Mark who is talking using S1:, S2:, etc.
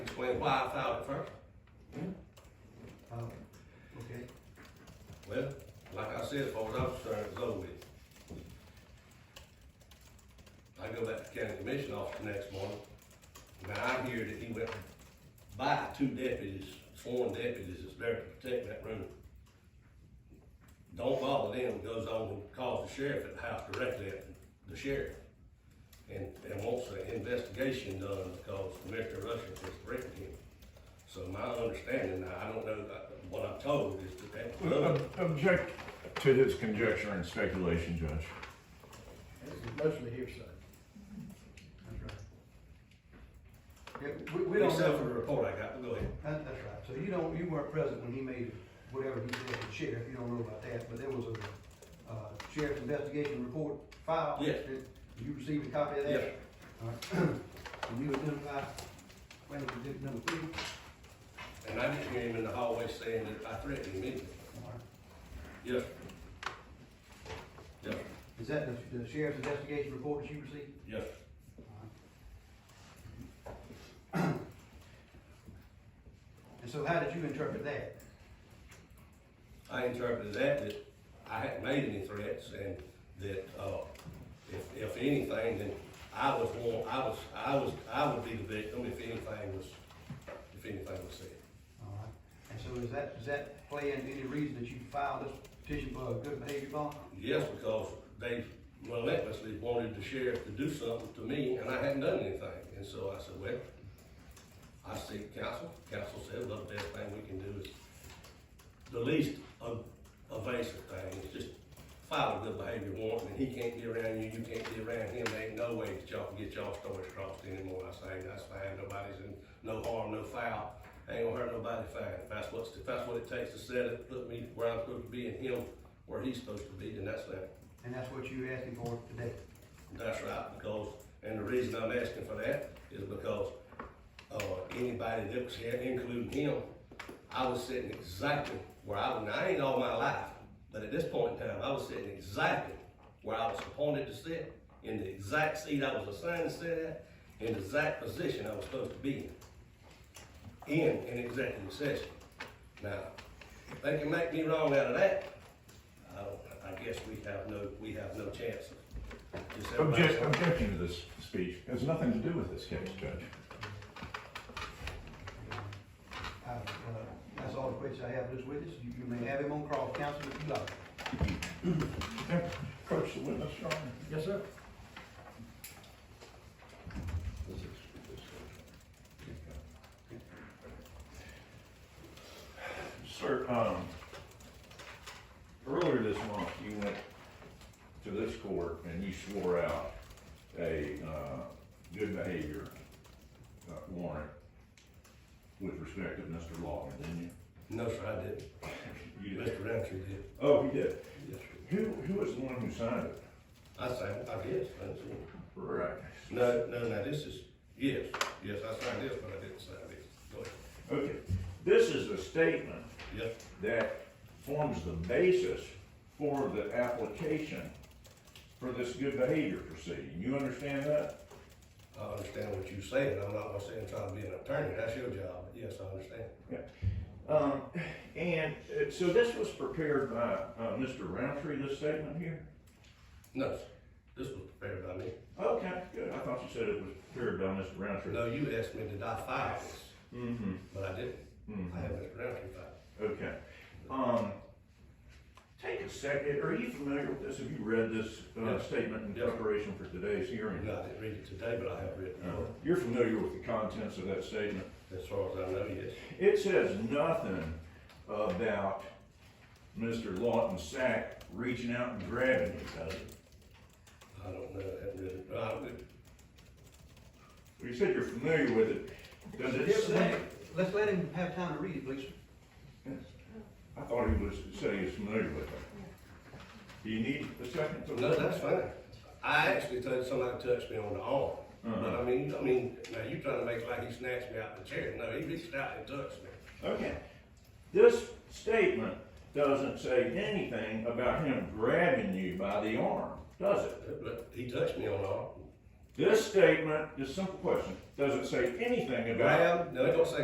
S1: Well, why I filed it first?
S2: Oh, okay.
S1: Well, like I said, as far as I'm concerned, it's over with. I go back to county commission office the next morning, and I hear that he went by two deputies, sworn deputies that's there to protect that room. Don't bother them, goes on and calls the sheriff at the house directly, at the sheriff. And, and wants an investigation done because Mr. Russell has threatened him. So my understanding, now, I don't know, uh, what I'm told is that that was done.
S3: Ob- Object to his conjecture and speculation, Judge.
S4: This is mostly hearsay.
S2: That's right. Yeah, we, we don't
S1: Except for
S2: know,
S1: the report I got, but go ahead.
S2: that, that's right, so you don't, you weren't present when he made whatever he did with the sheriff, you don't know about that, but there was a, uh, sheriff's investigation report filed.
S1: Yes.
S2: Did You received a copy of that?
S1: Yes.
S2: All right. And you identified, when you did number three?
S1: And I just hear him in the hallway saying that I threatened him, didn't
S2: All
S1: I?
S2: right.
S1: Yes. Yes,
S2: Is that the, the sheriff's investigation report that you received?
S1: yes.
S2: And so how did you interpret that?
S1: I interpreted that that I hadn't made any threats and that, uh, if, if anything, then I was one, I was, I was, I would be the victim if anything was, if anything was said.
S2: All right. And so is that, does that play into any reason that you filed this petition for a good behavior bond?
S1: Yes, because they relentlessly wanted the sheriff to do something to me, and I hadn't done anything. And so I said, well, I seek counsel. Counsel said, well, the best thing we can do is the least ev- evasive thing is just file a good behavior warrant, and he can't get around you, you can't get around him. There ain't no way that y'all can get y'all stories crossed anymore. I say, that's fine, nobody's in, no harm, no foul. Ain't gonna hurt nobody fine. If that's what's, if that's what it takes to set it, put me where I'm supposed to be and him where he's supposed to be, then that's that.
S2: And that's what you're asking for today?
S1: That's right, because, and the reason I'm asking for that is because, uh, anybody that was here, including him, I was sitting exactly where I, was. now, I ain't all my life, but at this point in time, I was sitting exactly where I was appointed to sit, in the exact seat I was assigned to sit at, in the exact position I was supposed to be in, in an executive session. Now, if they can make me wrong out of that, I don't, I guess we have no, we have no chance of. just everybody-
S3: Object, objection to this speech has nothing to do with this case, Judge.
S2: I, uh, That's all the questions I have for this witness. You you may have him on cross counsel if you like.
S3: Approach the witness, Your Honor.
S4: Yes, sir.
S3: Sir, um, earlier this month, you went to this court and you swore out a, uh, good behavior uh, warrant with respect to Mr. Lawton, didn't
S1: No, sir, I didn't.
S3: you? You did.
S1: Mr. Roundtree did.
S3: Oh, he did.
S1: Yes, sir.
S3: Who, who was the one who signed it?
S1: I signed, I guess, that's it.
S3: Right.
S1: No, no, now this is, yes, yes, I signed this, but I didn't sign this. Go ahead.
S3: Okay, this is a statement
S1: Yes,
S3: that forms the basis for the application for this good behavior proceeding. You understand that?
S1: I understand what you're saying. I'm not gonna say I'm trying to be an attorney. That's your job. But yes, I understand.
S3: Um, and, uh, so this was prepared by, uh, Mr. Roundtree, this statement here?
S1: No, sir. This was prepared by me.
S3: Okay, good, I thought you said it was prepared by Mr. Roundtree.
S1: No, you asked me did I file this,
S3: Mm-hmm,
S1: but I didn't.
S3: mm-hmm.
S1: I have Mr. Roundtree file.
S3: Okay. Um, take a second, are you familiar with this? Have you read this, uh,
S1: Yes.
S3: statement in
S1: Yes.
S3: preparation for today's hearing?
S1: No, I didn't read it today, but I have read it.
S3: Uh, You're familiar with the contents of that statement?
S1: As far as I know, yes.
S3: It says nothing about Mr. Lawton Sack reaching out and grabbing you, does it?
S1: I don't know. I haven't read it. But I would-
S3: Well, You said you're familiar with it. Does it
S2: Let's let
S3: say?
S2: him- Let's let him have time to read it, please.
S3: I thought he was, said he was familiar with it. Do you need a second to?
S1: No, that's fine. I actually told somebody touched me on the arm. But I mean, I mean, now you're trying to make it like he snatched me out of the chair. No, he reached out and touched me.
S3: Okay. This statement doesn't say anything about him grabbing you by the arm, does it?
S1: But he touched me on the arm.
S3: This statement, this simple question, doesn't say anything about.
S1: Graham, no, it don't say